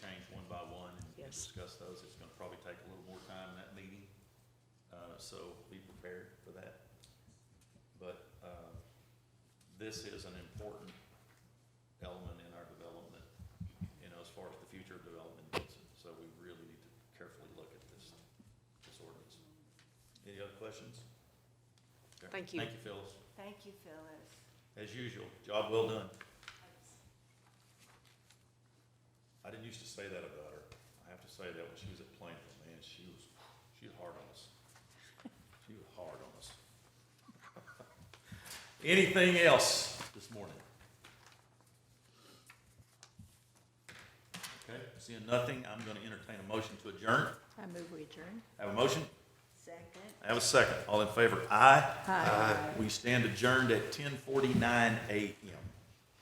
Yes. discuss those. It's gonna probably take a little more time in that meeting, uh, so be prepared for that. But, uh, this is an important element in our development, you know, as far as the future of development is. So we really need to carefully look at this, this ordinance. Any other questions? Okay. Thank you. Thank you, Phyllis. Thank you, Phyllis. As usual, job well done. I didn't used to say that about her. I have to say that when she was at Plainville, man, she was, she was hard on us. She was hard on us. Anything else this morning? Okay, seeing nothing, I'm gonna entertain a motion to adjourn. I move we adjourn. Have a motion? Second. Have a second. All in favor? Aye. Aye. We stand adjourned at ten forty-nine AM.